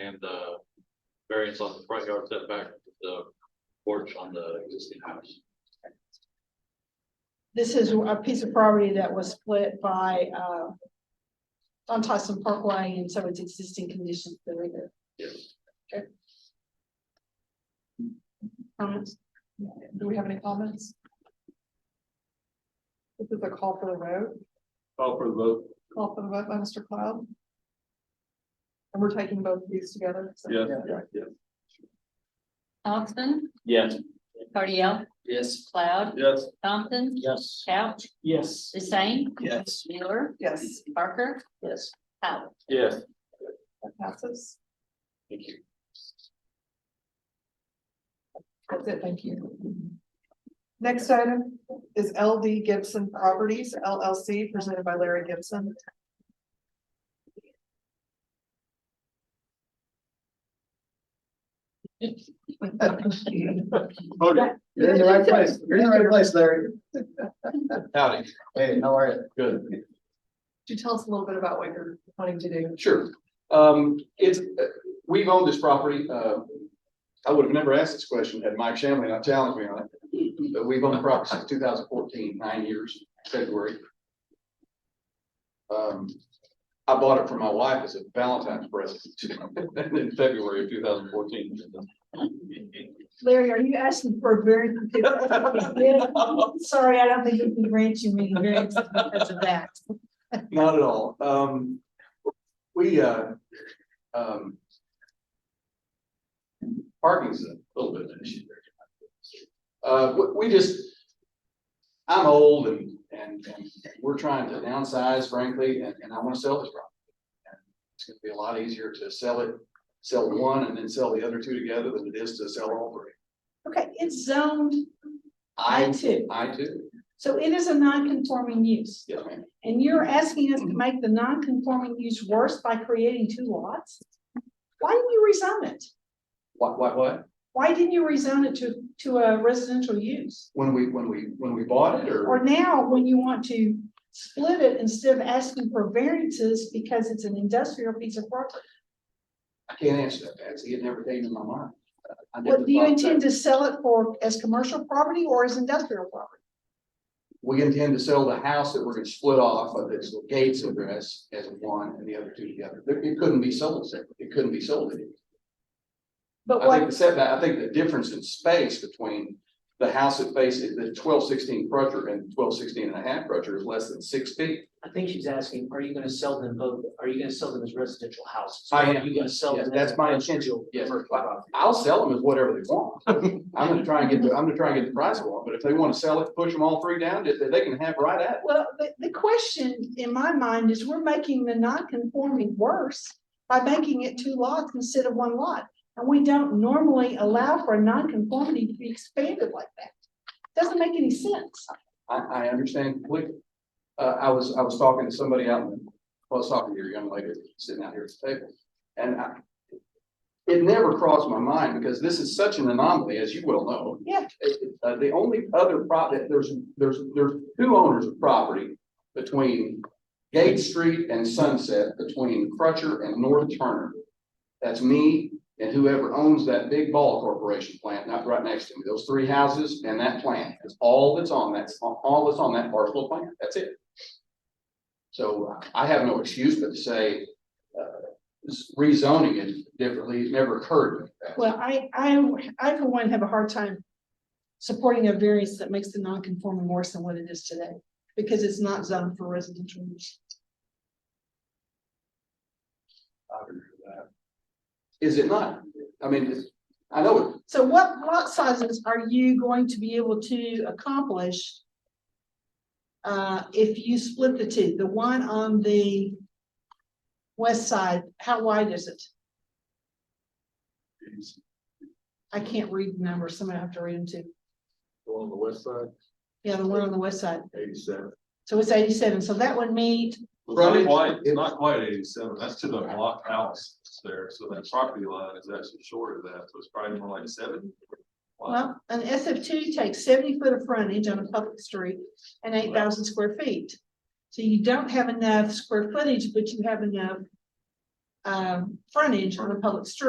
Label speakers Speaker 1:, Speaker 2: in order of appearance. Speaker 1: and the variance on the front yard setback, the porch on the existing house.
Speaker 2: This is a piece of property that was split by, uh, on Tyson Parkway, and so it's existing conditions that are there.
Speaker 1: Yes.
Speaker 2: Okay. Comments? Do we have any comments? This is a call for the vote.
Speaker 1: Call for the vote.
Speaker 2: call for the vote by Mr. Cloud. And we're taking both of these together. so-
Speaker 1: Yes. Yes.
Speaker 3: Thompson,
Speaker 1: Yes.
Speaker 3: Cardiel,
Speaker 1: Yes.
Speaker 3: Cloud,
Speaker 1: Yes.
Speaker 3: Thompson,
Speaker 1: Yes.
Speaker 3: Couch,
Speaker 1: Yes.
Speaker 3: Hussein,
Speaker 1: Yes.
Speaker 3: Mueller,
Speaker 2: Yes,
Speaker 3: Parker,
Speaker 1: Yes.
Speaker 3: Howard.
Speaker 1: Yes.
Speaker 2: that passes.
Speaker 1: Thank you.
Speaker 2: That's it, thank you. Next item is LD Gibson Properties LLC presented by Larry Gibson.
Speaker 1: Oh,
Speaker 4: You're in the right place. You're in the right place, Larry.
Speaker 1: Howdy.
Speaker 4: Hey, how are you?
Speaker 1: Good.
Speaker 2: Could you tell us a little bit about what you're wanting to do?
Speaker 4: Sure. Um, it's, uh, we've owned this property, uh, I would have never asked this question had Mike Shanley not challenged me on it. But we've owned the property since 2014, nine years, February. Um, I bought it for my wife as a Valentine's present in February of two thousand fourteen.
Speaker 2: Larry, are you asking for a very? Sorry, I don't think we can grant you any variance because of that.
Speaker 4: Not at all. Um, we, uh, um. Parking's a little bit of an issue there. Uh, we, we just. I'm old and, and, and we're trying to downsize frankly, and, and I wanna sell this property. And It's gonna be a lot easier to sell it, sell one and then sell the other two together than it is to sell all three.
Speaker 2: Okay, it's zoned I
Speaker 4: I,
Speaker 2: two,
Speaker 4: I too,
Speaker 2: so it is a non-conforming use.
Speaker 4: yes, ma'am.
Speaker 2: And you're asking us to make the non-conforming use worse by creating two lots? Why didn't you rezone it?
Speaker 4: What, what, what?
Speaker 2: Why didn't you rezone it to, to a residential use?
Speaker 4: When we, when we, when we bought it
Speaker 2: Or now, when you want to split it instead of asking for variances because it's an industrial piece of property?
Speaker 4: I can't answer that, Patsy. It never came to my mind. I never
Speaker 2: What, do you
Speaker 4: thought that.
Speaker 2: intend to sell it for as commercial property or as industrial property?
Speaker 4: We intend to sell the house that we're gonna split off of its Gates address as one and the other two together. There- It couldn't be sold separately. It couldn't be sold. anyway.
Speaker 2: But
Speaker 4: I think
Speaker 2: what,
Speaker 4: the setback, I think the difference in space between the house that faces the twelve sixteen crutcher and 12 16 and a half crutcher is less than six feet.
Speaker 5: I think she's asking, are you gonna sell them both, are you gonna sell them as residential houses?
Speaker 4: I am,
Speaker 5: Are you gonna sell
Speaker 4: yes,
Speaker 5: them?
Speaker 4: that's
Speaker 5: as
Speaker 4: my intention,
Speaker 5: industrial
Speaker 4: yes.
Speaker 5: commercial property?
Speaker 4: I'll sell them as whatever they want. I'm gonna try and get the, I'm gonna try and get the price I want, but if they wanna sell it, push them all three down, they, they can have right at it.
Speaker 2: well, the, the question in my mind is we're making the non-conforming worse by making it two lots instead of one lot. And we don't normally allow for a non-conformity to be expanded like that. Doesn't make any sense.
Speaker 4: I, I understand completely. Uh, I was, I was talking to somebody out in, well, I was talking to your young lady sitting out here at the table, and I. It never crossed my mind because this is such an anomaly, as you well know.
Speaker 2: Yeah.
Speaker 4: It- it- uh, the only other property, there's, there's, there's two owners of property between Gate Street and Sunset, between Crutcher and North Turner. That's me and whoever owns that big ball corporation plant, not right next to me, those three houses and that plant, is all that's on that, all that's on that parcel of land, that's it. So I have no excuse but to say, uh, this rezoning it differently, it never occurred to me.
Speaker 2: Well, I, I, I for one have a hard time supporting a variance that makes the non-conforming worse than what it is today, because it's not zoned for residential use.
Speaker 4: I would agree with that. Is it not? I mean, it's- I know, it-
Speaker 2: So what lot sizes are you going to be able to accomplish? Uh, if you split the two, the one on the west side, how wide is it? I can't read the numbers, so I'm gonna have to read them too.
Speaker 1: On the west side,
Speaker 2: Yeah, the one on the west side,
Speaker 1: eighty-seven.
Speaker 2: so it's eighty-seven, so that would meet
Speaker 1: It's not
Speaker 4: Right.
Speaker 1: quite, it's not quite eighty-seven, that's to the block house that's there, so that property line is actually short of that, so it's probably more like seven.
Speaker 2: Well, an SF two takes seventy foot of frontage on a public street and eight thousand square feet. So you don't have enough square footage, but you have enough um, frontage on a public street.